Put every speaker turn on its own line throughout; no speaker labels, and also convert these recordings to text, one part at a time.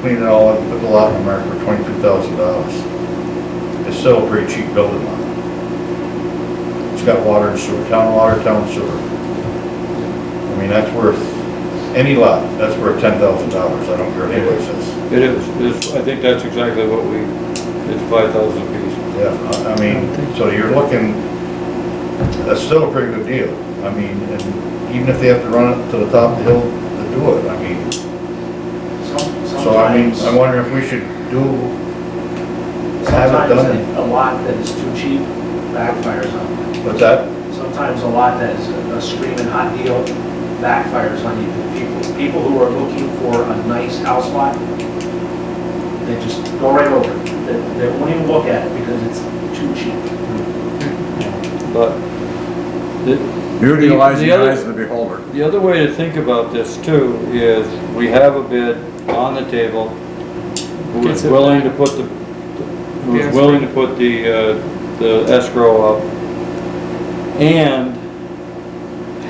Cleaned it all up, put the lot in America for twenty-two thousand dollars. It's still a pretty cheap building lot. It's got water and sewer, town water, town sewer. I mean, that's worth, any lot, that's worth ten thousand dollars, I don't care what anybody says.
It is, it's, I think that's exactly what we, it's five thousand piece.
Yeah, I- I mean, so you're looking, that's still a pretty good deal. I mean, and even if they have to run it to the top of the hill to do it, I mean,
Some-
so I mean,
Sometimes,
I wonder if we should do, have it done,
sometimes a lot that is too cheap backfires on
what's that?
you. Sometimes a lot that is a screaming hot deal backfires on you. People, people who are looking for a nice house lot, they just go right over it. They, they won't even look at it because it's too cheap.
But the,
You realize
The
the
other-
eyes of the beholder.
the other way to think about this too is we have a bid on the table who is
Gets it
willing to
back.
put the, who
Yes.
is willing to put the, uh, the escrow up and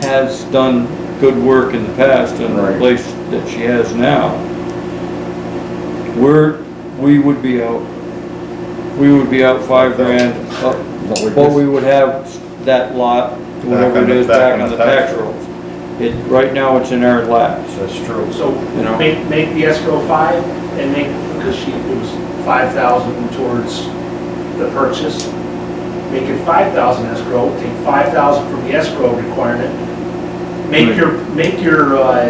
has done good work in the past in the
Right.
place that she has now. We're, we would be out, we would be out five grand, up
What we
But
just-
we would have that lot, whatever it is, back on the tax rolls. It, right now, it's in our laps.
That's true.
So
You know.
make, make the escrow five and make, because she, it was five thousand towards the purchase. Make it five thousand escrow, take five thousand from the escrow requirement. Make your, make your, uh,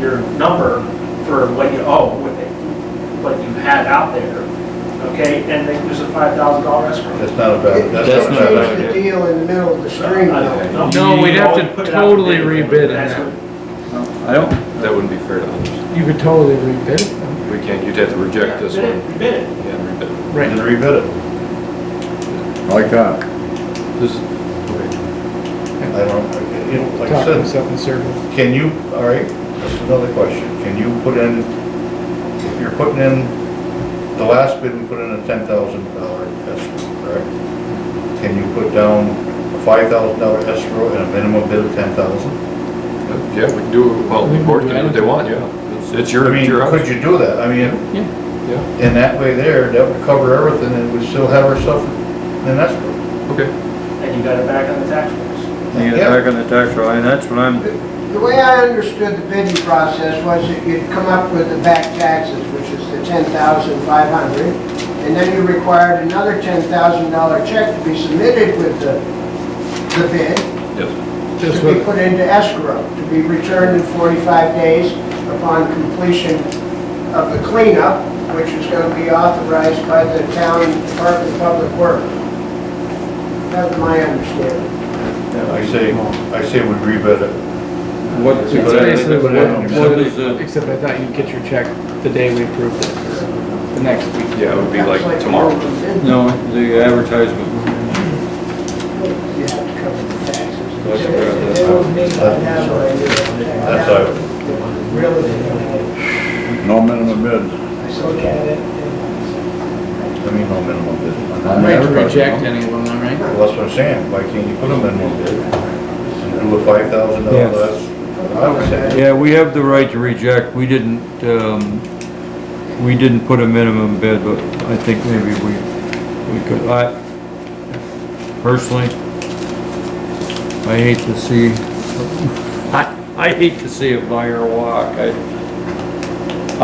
your number for what you owe, what they- what you had out there, okay? And then there's a five thousand dollar escrow.
That's not a bad, that's
That's
not a
not
bad
bad.
Change the deal in the middle of the stream, though.
No, we'd have to
You always put it out to
totally
bid.
rebid it.
That's what-
I don't,
That wouldn't be fair to others.
You could totally rebid them.
We can't, you'd have to reject this
Bid it,
one.
rebid it.
Yeah, and
idea.
rebid.
Right.
Just rebid it.
Like uh, that.
This,
I don't, you know, like I
Talking
said,
myself in circles.
can you, all right, that's another question. Can you put in, if you're putting in, the last bid, we put in a ten thousand dollar escrow, correct? Can you put down a five thousand dollar escrow and a minimum bid of ten thousand?
yeah, we can do, well, the board can do what they want, yeah. It's- It's
I
your,
mean,
it's your
could
house.
you do that? I mean,
Yeah,
in that way there, that would cover everything and we still have our stuff in escrow.
okay.
And you got it back on the tax rolls.
you get back on the tax roll, and that's what I'm,
The way I understood the bidding process was that you'd come up with the back taxes, which is the ten thousand five hundred, and then you required another ten thousand dollar check to be submitted with the, the bid,
Yes,
Just
to be
with-
put into escrow, to be returned in forty-five days upon completion of the cleanup, which is gonna be authorized by the town Department of Public Works. That's my understanding.
I say, I say we rebid it.
what,
It's
It's
whatever they
basically
put
what,
in,
what is the,
except I thought you'd get your check the day we approved it, or the next week.
yeah, it would be like tomorrow.
no, the advertisement.
You have to cover the taxes.
That's correct.
They won't make that happen.
That's how I would-
Really, they don't.
No minimum bid.
I just look at it and
I mean, no minimum bid.
I mean,
Right to
everybody,
reject
no?
any of them, then, right?
Well, that's what I'm saying, why can't you put them in one bid? And do a five thousand dollar
Yes.
less? I would say,
Yeah, we have the right to reject, we didn't, um, we didn't put a minimum bid, but I think maybe we, we could, I, personally, I hate to see, I, I hate to see a buyer walk, I,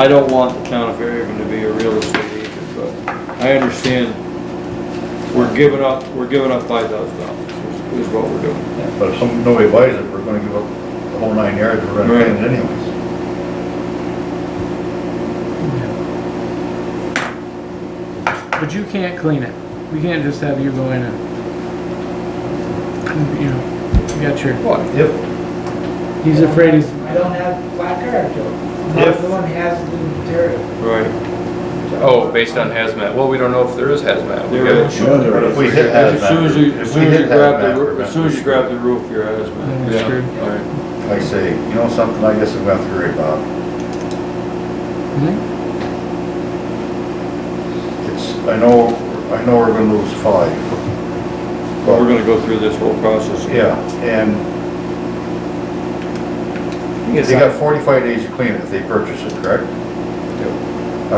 I don't want the town of Fairhaven to be a real estate agent, but I understand we're giving up, we're giving up five thousand dollars, is what we're doing.
but if some, nobody buys it, we're gonna give up the whole nine yards, we're gonna pay it anyways.
But you can't clean it. We can't just have you go in and, you know, you got your,
What?
If,
he's afraid he's,
I don't have black card, Joe.
If-
No one has the material.
Right.
Oh, based on hazmat, well, we don't know if there is hazmat. We
There
gotta-
is.
Yeah, there
but if
is.
we hit
As
hazmat.
soon as you, as
if we
soon as
hit
you grab
hazmat,
the,
we're
roo- as soon as you
gonna-
grab the roof, you're out of
Yeah,
man.
you're screwed.
All right.
I say, you know something, I guess I'm gonna have to worry about,
Hmm?
it's, I know, I know we're gonna lose five.
But we're gonna go through this whole process.
Yeah, and they got forty-five days to clean it if they purchase it, correct?